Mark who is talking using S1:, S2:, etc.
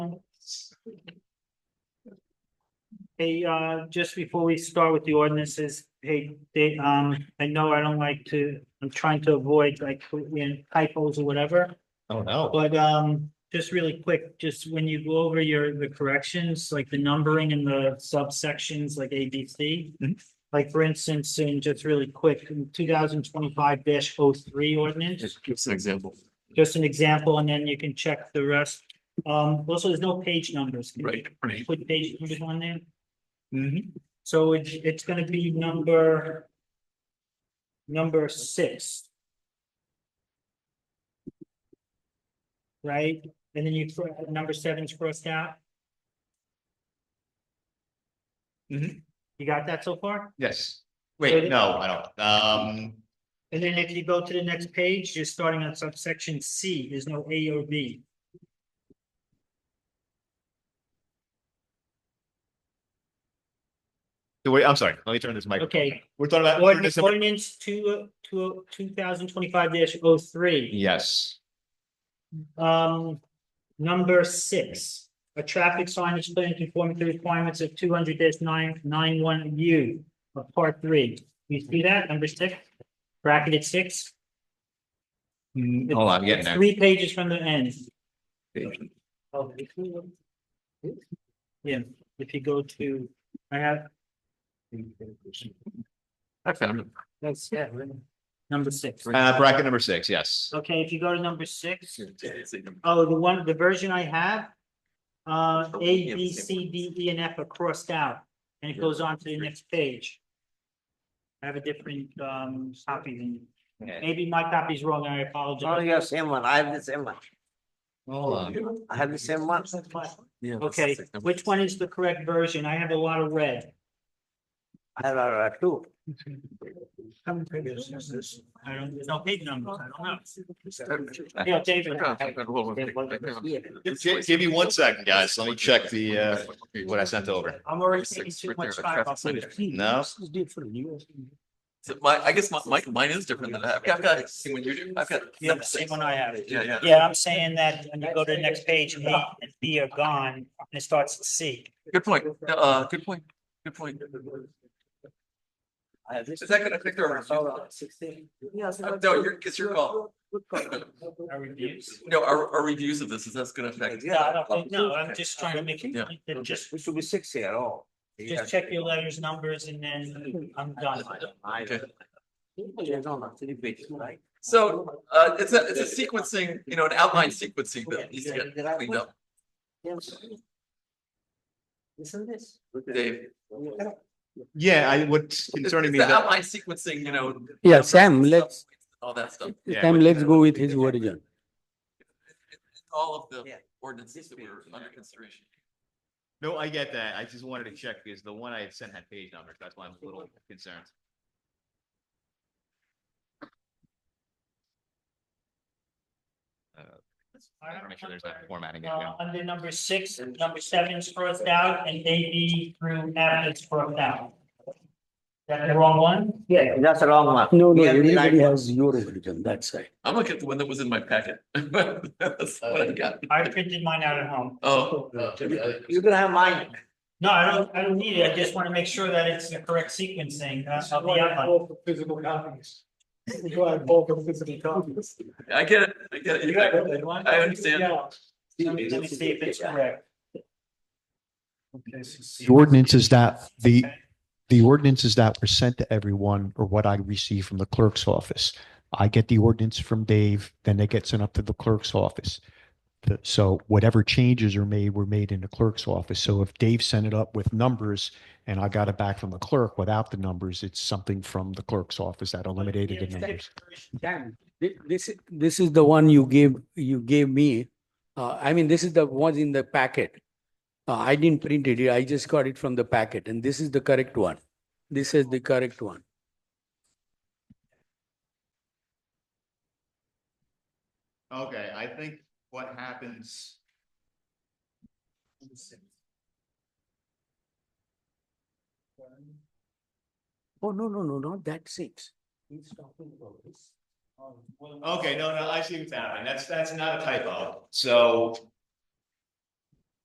S1: Hey, uh, just before we start with the ordinances, hey, they, um, I know I don't like to, I'm trying to avoid like you know, typos or whatever.
S2: Oh, no.
S1: But, um, just really quick, just when you go over your, the corrections, like the numbering and the subsections, like A, B, C.
S2: Mhm.
S1: Like, for instance, in just really quick, two thousand twenty-five 3 ordinance
S2: Just give us an example.
S1: just an example, and then you can check the rest. Um, also, there's no page numbers. Can you
S2: Right, right.
S1: Put page numbers on there,
S2: Mhm.
S1: so it's, it's gonna be number. Number six. Right, and then you, cr- number seven's crossed out.
S2: Mhm.
S1: You got that so far?
S2: Yes.
S1: Ready?
S2: Wait, no, I don't. Um,
S1: And then if you go to the next page, you're starting on subsection C, there's no A or B.
S2: so wait, I'm sorry. Let me turn this mic.
S1: Okay.
S2: We're talking about.
S1: Ordinance,
S2: ordinance number-
S1: ordinance two, two, two thousand twenty-five dash oh three,
S2: Yes.
S1: um, number six. A traffic sign is put in conformity to requirements of two hundred nine, nine one U of part three. You see that, number six, bracketed six,
S2: Mm, Hold on, I'm getting
S1: three pages from the end.
S2: there.
S1: Oh, if you- Yeah, if you go to, I have,
S2: I found it.
S1: that's, yeah, right. number six.
S2: Uh, bracket number six, yes.
S1: Okay, if you go to number six. Oh, the one, the version I have. Uh, A, B, C, D, E, and F are crossed out, and it goes on to the next page. I have a different um copy than, maybe my copy's wrong, I
S3: Oh,
S1: apologize.
S3: you have same one, I have the same one,
S2: Hold on.
S3: I have the same one.
S1: Okay, which one is the correct version? I have a lot of red.
S3: I have uh, two.
S1: I don't, there's no page numbers, I don't know. Yeah, David.
S2: Gi- Give me one second, guys. Let me check the, uh, what I sent over.
S1: I'm already taking too much time. off of it.
S2: No?
S4: So my, I guess my, Mike, mine is different than that. I've got- I've got, see what you do, I've got.
S1: Yeah, the same one I have.
S4: Yeah, yeah.
S1: Yeah, I'm saying that when you go to the next page, A and B are gone, and it starts at C.
S4: Good point. Uh, good point. Good point.
S3: I have this.
S4: Is that gonna affect our-
S3: Hold on, Sixteen.
S4: Uh, No, your, it's your call.
S1: I reviews.
S4: No, our, our reviews of this, is that's gonna affect?
S3: Yeah, I
S1: I don't think, no, I'm just trying to make it,
S4: Yeah.
S1: that just,
S3: We should be six here, oh.
S1: just check your letters, numbers, and then I'm done.
S3: I-
S4: Okay.
S3: There's only three pages, right?
S4: So, uh, it's a, it's a sequencing, you know, an outline sequencing that needs to get cleaned up,
S3: Yes. Listen this.
S4: Dave.
S2: Yeah, I, what's
S4: It's
S2: concerning
S4: it's
S2: me
S4: the
S2: is that.
S4: outline sequencing, you know.
S5: Yeah, Sam, let's-
S4: All that stuff.
S2: Yeah,
S5: Sam,
S2: but-
S5: let's go with his origin.
S4: All of the
S3: Yeah.
S4: ordinances that were under consideration.
S2: No, I get that. I just wanted to check because the one I had sent had page numbers. That's why I'm a little concerned. Uh, I want to make sure there's not formatting. issue.
S1: Uh, under number six, number seven is crossed out, and A, B through F is crossed out. That the wrong one?
S3: Yeah, that's the wrong one.
S5: No, no,
S3: We have the right
S5: everybody
S3: one.
S5: has your origin, that's right.
S4: I'm looking at the one that was in my packet. That's what I got.
S1: I printed mine out at home.
S4: Oh.
S3: You can have mine.
S1: No, I don't, I don't need it, I just want to make sure that it's the correct sequencing, uh, of the outline.
S4: I get it, I get it. You got it. I understand.
S1: Let me, let me see if it's correct.
S6: The ordinances that the, the ordinances that were sent to everyone are what I receive from the clerk's office. I get the ordinance from Dave, then it gets sent up to the clerk's office. The- So whatever changes are made were made in the clerk's office. So if Dave sent it up with numbers and I got it back from the clerk without the numbers, it's something from the clerk's office that eliminated the numbers.
S5: Sam, thi- this, is- this is the one you gave, you gave me. Uh, I mean, this is the ones in the packet. Uh, I didn't print it, I just got it from the packet, and this is the correct one. This is the correct one.
S2: Okay, I think what happens.
S5: Oh, no, no, no, not that six.
S2: Okay, no, no, I see what's happening. That's, that's not a typo. So